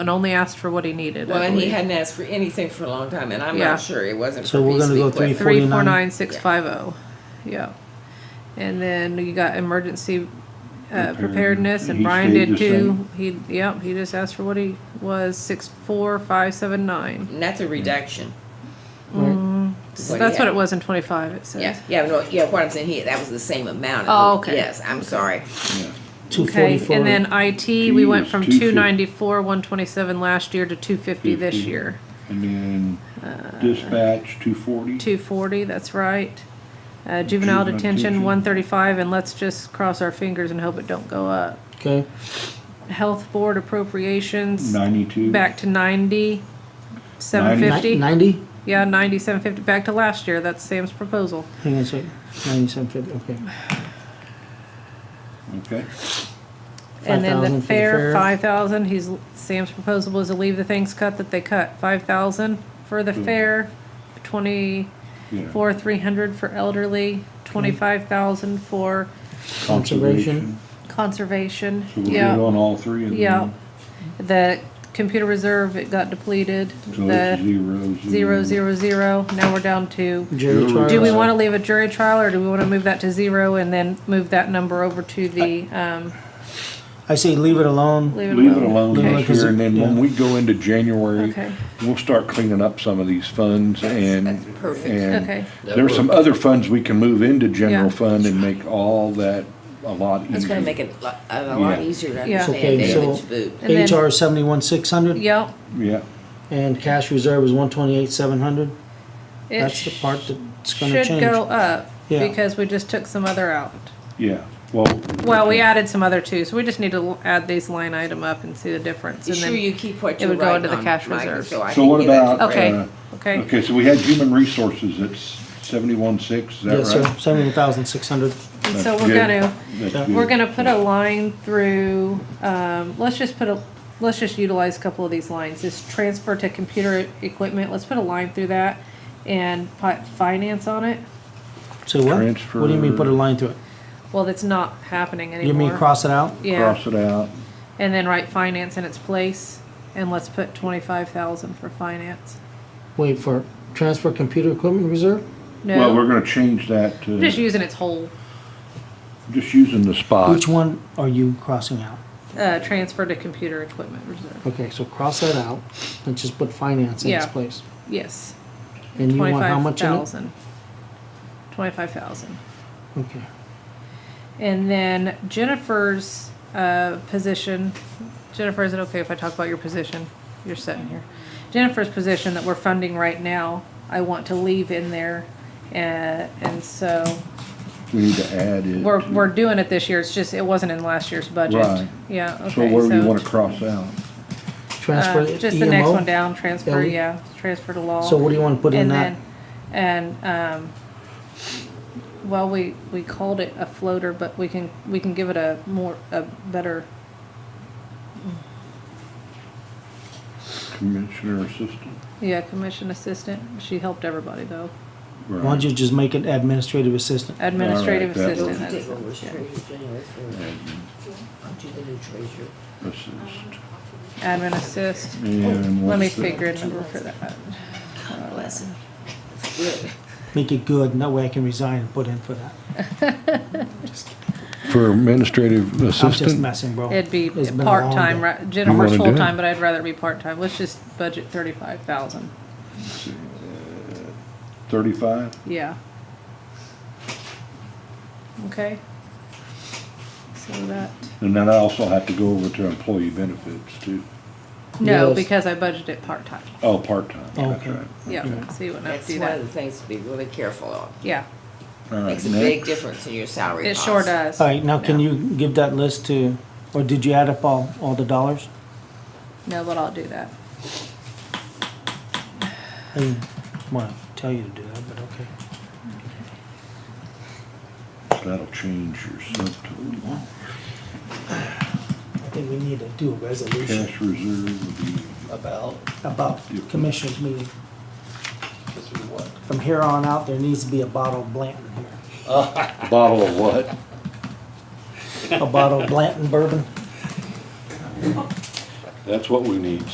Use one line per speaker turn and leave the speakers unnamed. and only asked for what he needed. I
Well, and he
believe.
hadn't asked for anything for a long time, and I'm
Yeah.
not sure it wasn't.
So
for
we're
Beast
gonna go
Week,
three,
but-
Three four
49.
nine six five oh, yeah. And then you got emergency uh, preparedness, and
He
Brian
stayed
did
the
too. He, yep, he just asked for what he was, six four five seven nine.
And that's a reduction.
Mm,
So that's what
yeah.
it was in twenty-five, it says.
Yeah, yeah, no, yeah. What I'm saying here, that was the same amount.
Oh, okay.
Yes, I'm sorry.
Two
Okay,
forty-four.
and then IT, we went from
Geez, 250.
two ninety-four, one twenty-seven last year to two fifty this
50.
year.
And then dispatch, two forty.
Uh, Two forty, that's right. Uh, juvenile
Juvenile
detention,
detention.
one thirty-five, and let's just cross our fingers and hope it don't go up.
Okay,
Health board appropriations,
Ninety-two.
back to ninety, seven fifty,
ninety?
yeah, ninety, seven fifty, back to last year, that's Sam's proposal.
Hang on a second, ninety-seven fifty, okay.
Okay,
And then
5,000
the
for the
fair,
fair.
five thousand, he's, Sam's proposal was to leave the things cut that they cut, five thousand for the
Hmm.
fair, twenty-four,
yeah.
three hundred for elderly, twenty-five thousand for
Conservation.
conservation,
So we'll do it
yeah,
on all three of them.
yeah. The computer reserve, it got depleted,
So it's
the
zero,
zero, zero, zero, now we're down to
Jury
Do
trial.
Do we wanna leave a jury trial, or do we wanna move that to zero and then move that number over to the, um,
I say leave it alone.
leave it
Leave it
alone?
alone
Okay.
this year, and then when
Yeah.
we go into January,
Okay.
we'll start cleaning up some of these funds and.
that's perfect.
and
Okay.
There's some other funds we can move into
Yeah.
general fund and make all that a lot easier.
It's going to make it a lot, a lot
Mm-hmm. Yeah.
easier to
Yeah.
understand
Okay,
David's
so-
food.
And then-
HR seventy-one six hundred
Yep,
Yeah,
and cash reserve is one twenty-eight seven hundred.
it
That's the
sh-
part that's gonna
should go
change.
up,
Yeah.
because we just took some other out.
yeah, well.
Well, we added some other too, so we just need to l- add these line item up and see the difference,
You
and
sure
then,
you keep what
it
you're
would go
writing
into the
on,
cash
Mike,
reserves.
So, I
So
can
what
give that to
about,
Brad.
Okay,
uh,
okay.
Okay, so we had human resources, it's seventy-one six, is that right?
Yes, sir, seventy-one thousand six hundred.
and so
That's
we're
good.
gonna,
That's
Yeah.
good.
we're gonna put a line through, um, let's just put a, let's just utilize a couple of these lines, this transfer to computer equipment, let's put a line through that and put finance on it.
Say what? What do you mean put a
Transfer.
line through it?
Well, that's not happening anymore.
You mean cross it out?
Yeah,
Cross it out,
and then write finance in its place, and let's put twenty-five thousand for finance.
Wait for transfer computer equipment reserve?
well, we're
No,
gonna change that
we're just
to,
using its whole,
just using the spot.
Which one are you crossing out?
uh, transfer to computer equipment reserve.
Okay, so cross that out and just put finance in its
Yeah.
place.
Yes,
And you want how
twenty-five
much in it?
thousand. Twenty-five thousand.
Okay.
And then Jennifer's, uh, position, Jennifer, is it okay if I talk about your position? You're sitting here. Jennifer's position that we're funding right now, I want to leave in there, uh, and so
We need to add it.
We're, we're doing it this year, it's just, it wasn't in last year's budget.
Right.
Yeah, okay,
So
so.
where do you wanna cross out?
Transfer E
uh,
EMO?
Just the next one down, transfer,
LE?
yeah, transfer to law.
So what do you wanna put in
And
that?
then, and, um, well, we, we called it a floater, but we can, we can give it a more, a better,
Commissioner assistant?
yeah, commission assistant. She helped everybody though.
Right.
Why don't you just make it administrative assistant?
Administrative
that-
assistant.
Don't you
that's-
think what was treasurer general for-
Admin
aren't you the new treasurer?
Assist.
Admin assist.
And
Oh, Let me
what's the-
figure a number for that.
Bless him. Good.
Make it good, and that way I can resign and put in for that.
For administrative
I'm just
assistant?
messing, bro.
It'd be
It's been a long
part-time,
day.
right?
wanna do
Jennifer's
it?
full-time, but I'd rather be part-time. Let's just budget thirty-five thousand.
Thirty-five?
Yeah. Okay. So that,
And then I also have to go over to employee benefits too.
no,
Yes.
because I budgeted it part-time.
Oh, part-time, that's
Okay.
right.
Yeah, so you wouldn't have
That's
to do
one of
that.
the things to be really careful of.
Yeah,
All right,
Makes a
next.
big difference in your salary.
it sure
cost.
does.
All right, now can you give that list to, or did you add up all, all the dollars?
No, but I'll do that.
I didn't want to tell you to do that, but okay.
That'll change your subtotal.
I think we need to do a resolution
Cash reserve would be.
About,
about commissioners meeting.
this is what?
From here on out, there needs to be a bottle of Blanton here.
Bottle of what?
A bottle of Blanton bourbon.
That's what we need.